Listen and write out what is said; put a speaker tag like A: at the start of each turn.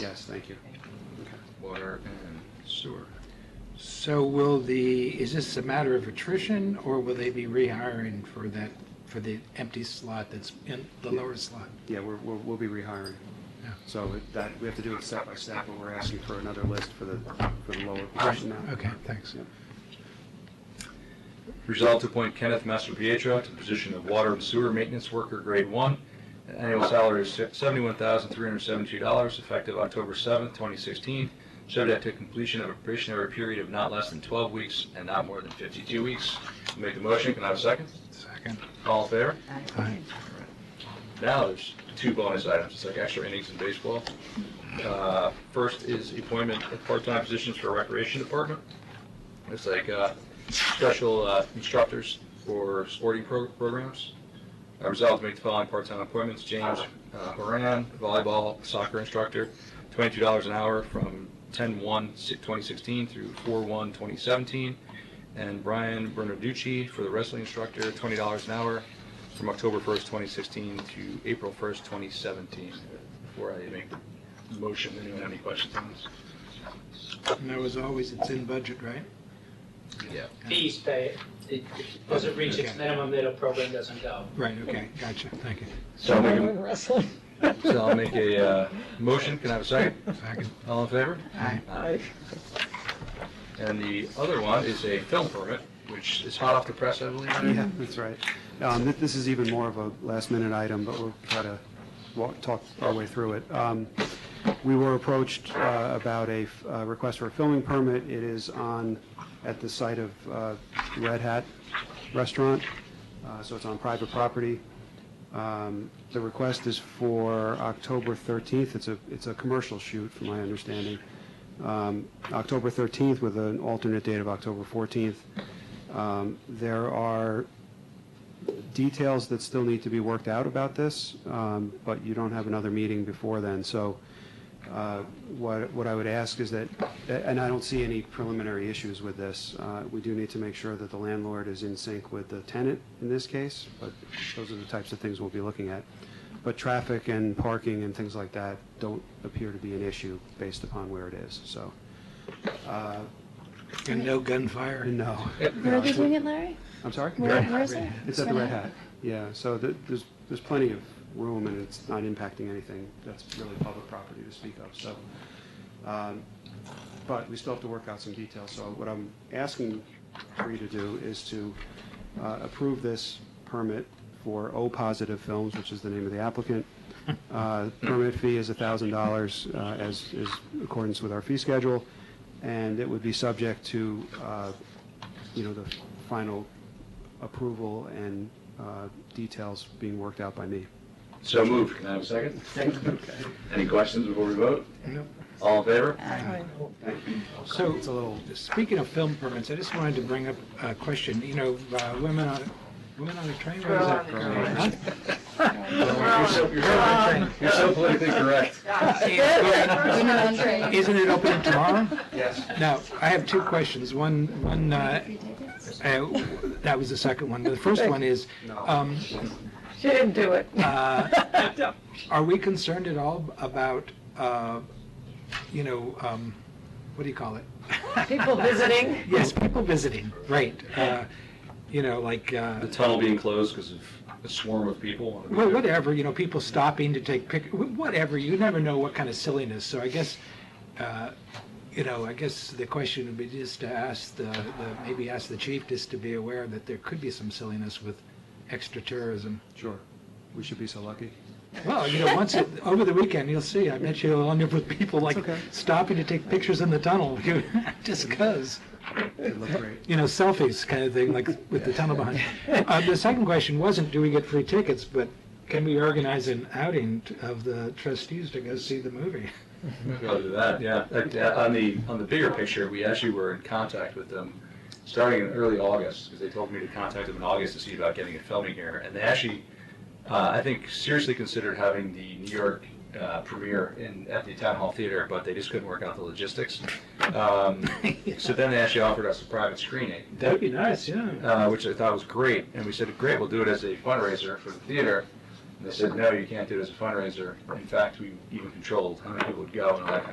A: Yes, thank you.
B: water and sewer.
A: So will the, is this a matter of attrition, or will they be rehiring for that, for the empty slot that's in the lower slot?
C: Yeah, we're, we're, we'll be rehiring.
A: Yeah.
C: So it- that, we have to do it step by step, but we're asking for another list for the, for the lower position now.
A: Okay, thanks.
C: Yeah.
B: Resolved to appoint Kenneth Master Pietro to the position of water and sewer maintenance worker, grade one, an annual salary of seventy-one thousand three hundred seventy-two dollars, effective October seventh, twenty sixteen, subject to completion of a probationary period of not less than twelve weeks and not more than fifty-two weeks. Make the motion, can I have a second?
A: Second.
B: All in favor?
A: Aye.
B: Now there's two bonus items. It's like extra innings in baseball. Uh, First is appointment of part-time positions for recreation department. It's like uh, special uh, instructors for sporting pro- programs. I resolved to make the following part-time appointments. James uh, Horan, volleyball soccer instructor, twenty-two dollars an hour from 10-1-2016 through 4-1-2017, And Brian Bernarducci for the wrestling instructor, twenty dollars an hour from October 1st, 2016 to April 1st, 2017. Before I make the motion, anyone have any questions on this?
A: And as always, it's in budget, right?
B: Yeah.
D: fees pay, it It- if it doesn't reach its
A: Okay.
D: minimum, then a program doesn't go.
A: Right, okay, gotcha, thank you.
B: So I'll make
E: Women wrestling.
B: a, so I'll make a uh, motion. Can I have a second?
A: Second.
B: All in favor?
A: Aye.
E: Aye.
B: And the other one is a film permit, which is hot off the press, I believe.
C: Yeah, that's right. Um, thi- This is even more of a last-minute item, but we'll try to walk, talk our way through it. Um, We were approached uh, about a f- uh, request for a filming permit. It is on, at the site of uh, Red Hat Restaurant, uh, so it's on private property. Um, The request is for October 13th. It's a, it's a commercial shoot, from my understanding. Um, October 13th with an alternate date of October 14th. Um, There are details that still need to be worked out about this, um, but you don't have another meeting before then. So uh, what what I would ask is that, and I don't see any preliminary issues with this, uh, we do need to make sure that the landlord is in sync with the tenant in this case, but those are the types of things we'll be looking at. But traffic and parking and things like that don't appear to be an issue based upon where it is, so, uh,
A: And no gunfire?
C: no.
F: Where are they doing it, Larry?
C: I'm sorry?
F: Where, where is it?
C: It's at the
F: Red
C: Red
F: Hat.
C: Hat, yeah, so th- there's, there's plenty of room, and it's not impacting anything that's really public property to speak of, so. um, But we still have to work out some details, so what I'm asking for you to do is to uh, approve this permit for O Positive Films, which is the name of the applicant. Uh, Permit fee is $1,000, uh, as is accordance with our fee schedule, and it would be subject to, uh, you know, the final approval and uh, details being worked out by me.
B: So moved. Can I have a second? Any questions before we vote?
A: No.
B: All in favor?
E: Aye.
A: So,
C: It's a little,
A: speaking of film permits, I just wanted to bring up a question, you know, uh, women on, women on a train? What is that?
C: Girl on a
A: Huh?
B: You're so- you're so- You're so politically correct.
A: Isn't it opening tomorrow?
C: yes.
A: Now, I have two questions. One, one, uh, uh, that was the second one. The first one is, um,
E: She didn't do it.
A: uh, are we concerned at all about, uh, you know, um, what do you call it?
E: People visiting.
A: Yes, people visiting, right. Uh, You know, like, uh,
B: The tunnel being closed because of a swarm of people.
A: well, whatever, you know, people stopping to take pic, wh- whatever, you never know what kind of silliness. So I guess, uh, you know, I guess the question would be just to ask the, the- maybe ask the chief just to be aware that there could be some silliness with extra tourism.
C: Sure. We should be so lucky.
A: Well, you know, once, it- over the weekend, you'll see, I bet you'll end up with people like
C: okay.
A: stopping to take pictures in the tunnel, just 'cause.
C: It looked great.
A: you know, selfies kind of thing, like with the tunnel behind. Uh, the second question wasn't, do we get free tickets, but can we organize an outing t- of the trustees to go see the movie?
B: Other than that, yeah. Like, uh, On the, on the bigger picture, we actually were in contact with them starting in early August, because they told me to contact them in August to see about getting it filming here. And they actually, uh, I think, seriously considered having the New York uh, premiere in, at the Town Hall Theater, but they just couldn't work out the logistics. Um, So then they actually offered us a private screening
A: That'd be nice, yeah.
B: uh, which I thought was great. And we said, great, we'll do it as a fundraiser for the theater. They said, no, you can't do it as a fundraiser. In fact, we even controlled how many people would go and all that kind of